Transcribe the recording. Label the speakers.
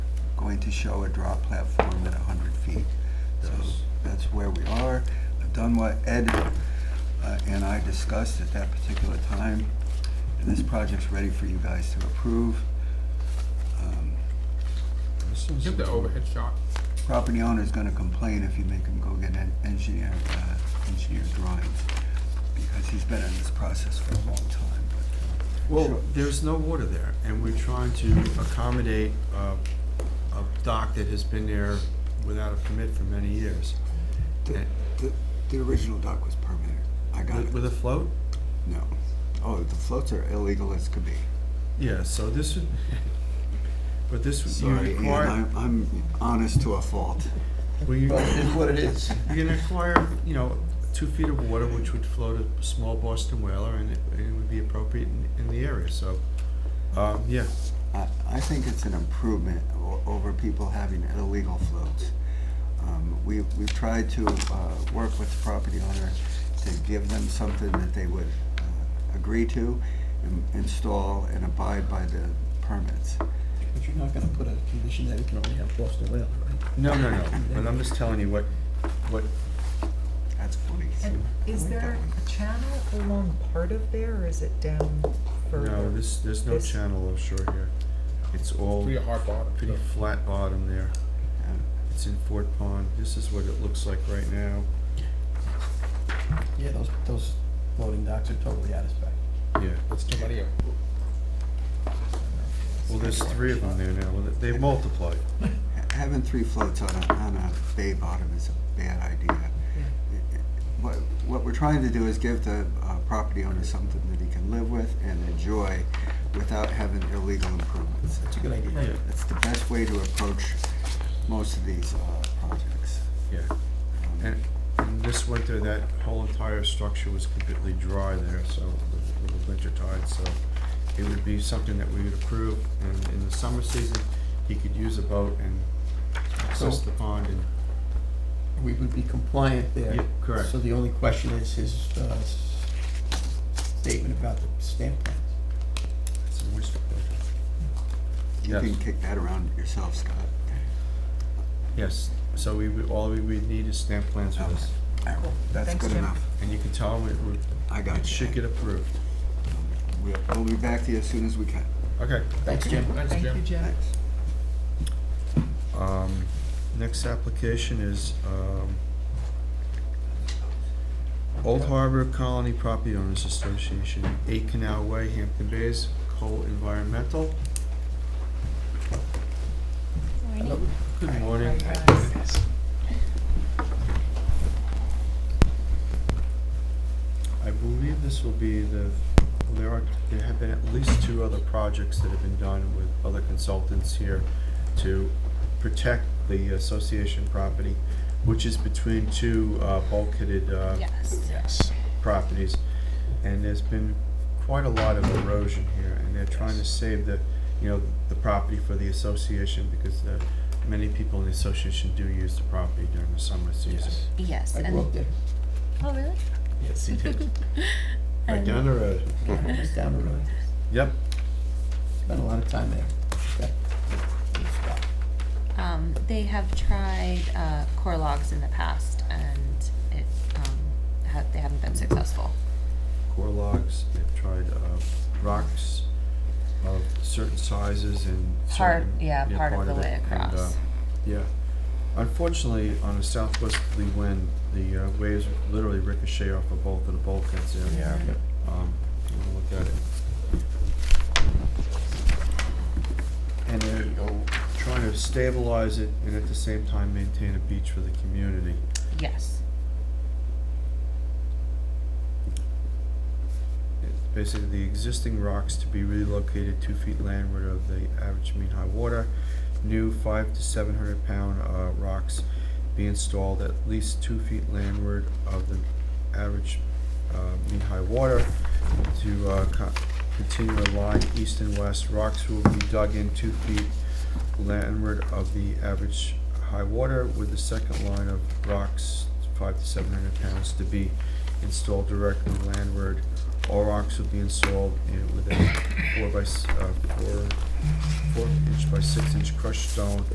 Speaker 1: going to show a drop platform at hundred feet. So
Speaker 2: Yes.
Speaker 1: that's where we are. I've done what Ed uh, and I discussed at that particular time, and this project's ready for you guys to approve. Um,
Speaker 3: Give the overhead shot.
Speaker 1: Property owner's gonna complain if you make him go get an engineer, uh, engineer drawings, because he's been in this process for a long time, but
Speaker 2: Well, there's no water there, and we're trying to accommodate uh, a dock that has been there without a permit for many years.
Speaker 1: The,
Speaker 2: And-
Speaker 1: the, the original dock was permitted. I got
Speaker 2: With with
Speaker 1: it.
Speaker 2: a float?
Speaker 1: No. Oh, the floats are illegal as could be.
Speaker 2: Yeah, so this would, but this would, you
Speaker 1: Sorry, Ian,
Speaker 2: require,
Speaker 1: I'm, I'm honest to a fault.
Speaker 2: well, you,
Speaker 4: But it is what it is.
Speaker 2: you're gonna require, you know, two feet of water, which would float a small Boston whaler, and it, and it would be appropriate in, in the area, so, um, yeah.
Speaker 1: I, I think it's an improvement o- over people having illegal floats. Um, we, we've tried to, uh, work with the property owner to give them something that they would, uh, agree to, and install and abide by the permits.
Speaker 4: But you're not gonna put a condition that we can only have Boston whaler, right?
Speaker 2: No, no, no, but I'm just telling you what, what,
Speaker 1: That's funny.
Speaker 5: And is
Speaker 1: like that
Speaker 5: there
Speaker 1: one.
Speaker 5: a channel along part of there, or is it down further?
Speaker 2: no, this, there's no
Speaker 5: This-
Speaker 2: channel offshore here. It's all
Speaker 3: Pretty hard bottom.
Speaker 2: pretty
Speaker 3: so.
Speaker 2: flat bottom there.
Speaker 1: Yeah.
Speaker 2: It's in Fort Pond. This is what it looks like right now.
Speaker 4: Yeah, those, those floating docks are totally out of spec.
Speaker 2: Yeah.
Speaker 3: It's too many of them.
Speaker 2: Well, there's three of them there now. Well, They've multiplied.
Speaker 1: Having three floats on a, on a bay bottom is a bad idea. What, what we're trying to do is give the uh, property owner something that he can live with and enjoy without having illegal improvements.
Speaker 4: That's a good idea.
Speaker 2: Yeah,
Speaker 1: That's the best way to approach most of these uh, projects.
Speaker 2: yeah.
Speaker 1: Um,
Speaker 2: And, and this winter, that whole entire structure was completely dry there, so, with- with the winter tide, so it would be something that we would approve. And in the summer season, he could use a boat and access
Speaker 4: So-
Speaker 2: the pond and,
Speaker 4: We would be compliant there.
Speaker 2: Yeah, correct.
Speaker 4: So the only question is his, uh, s- statement about the stamp plans.
Speaker 2: it's an oyster boat.
Speaker 1: You
Speaker 2: yes.
Speaker 1: can kick that around yourself, Scott.
Speaker 2: Yes, so we, would- all we would need is stamp plans for this.
Speaker 1: That's
Speaker 5: Thanks,
Speaker 1: good
Speaker 5: Jim.
Speaker 1: enough.
Speaker 2: And you can tell him it would,
Speaker 1: I got you.
Speaker 2: it should get approved.
Speaker 1: We'll, we'll be back to you as soon as we can.
Speaker 2: Okay.
Speaker 4: Thanks, Jim.
Speaker 3: Thanks,
Speaker 5: Thank you,
Speaker 3: Jim.
Speaker 5: Jim.
Speaker 1: Thanks.
Speaker 2: Um, next application is, um, Old Harbor Colony Property Owners Association, Eight Canal Way, Hampton Bays, Cole Environmental. Good morning. I believe this will be the, well, there are, there have been at least two other projects that have been done with other consultants here to protect the association property, which is between two uh, bulkheaded uh,
Speaker 6: Yes.
Speaker 2: properties. And there's been quite a lot of erosion here, and they're trying to save the, you know, the property for the association because the, many people in the association do use the property during the summer season.
Speaker 6: Yes.
Speaker 4: I
Speaker 6: and-
Speaker 4: grew up there,
Speaker 6: Oh, really?
Speaker 2: Yes, he did. Right
Speaker 6: And-
Speaker 2: down the road.
Speaker 4: just down the road.
Speaker 2: Yep.
Speaker 4: Spent a lot of time there. Okay. Good spot.
Speaker 6: Um, they have tried, uh, core logs in the past and it, um, ha- they haven't been successful.
Speaker 2: core logs, they've tried uh, rocks of certain sizes and
Speaker 6: Part,
Speaker 2: certain-
Speaker 6: yeah, part of the
Speaker 2: it,
Speaker 6: way
Speaker 2: and, uh,
Speaker 6: across.
Speaker 2: Yeah. Unfortunately, on a southwesterly wind, the uh, waves literally ricochet off of both of the bulkheads there.
Speaker 6: Yeah. Yep.
Speaker 2: Um, you wanna look at it. And they're trying to stabilize it and at the same time maintain a beach for the community.
Speaker 6: Yes.
Speaker 2: It's basically the existing rocks to be relocated two feet landward of the average mean high water. New five to seven hundred pound, uh, rocks be installed at least two feet landward of the average, uh, mean high water. To, uh, co- continue a line east and west, rocks will be dug in two feet landward of the average high water with the second line of rocks, five to seven hundred pounds, to be installed directly landward. All rocks will be installed in, with a four by, s- uh, four, four inch by six inch crushed stone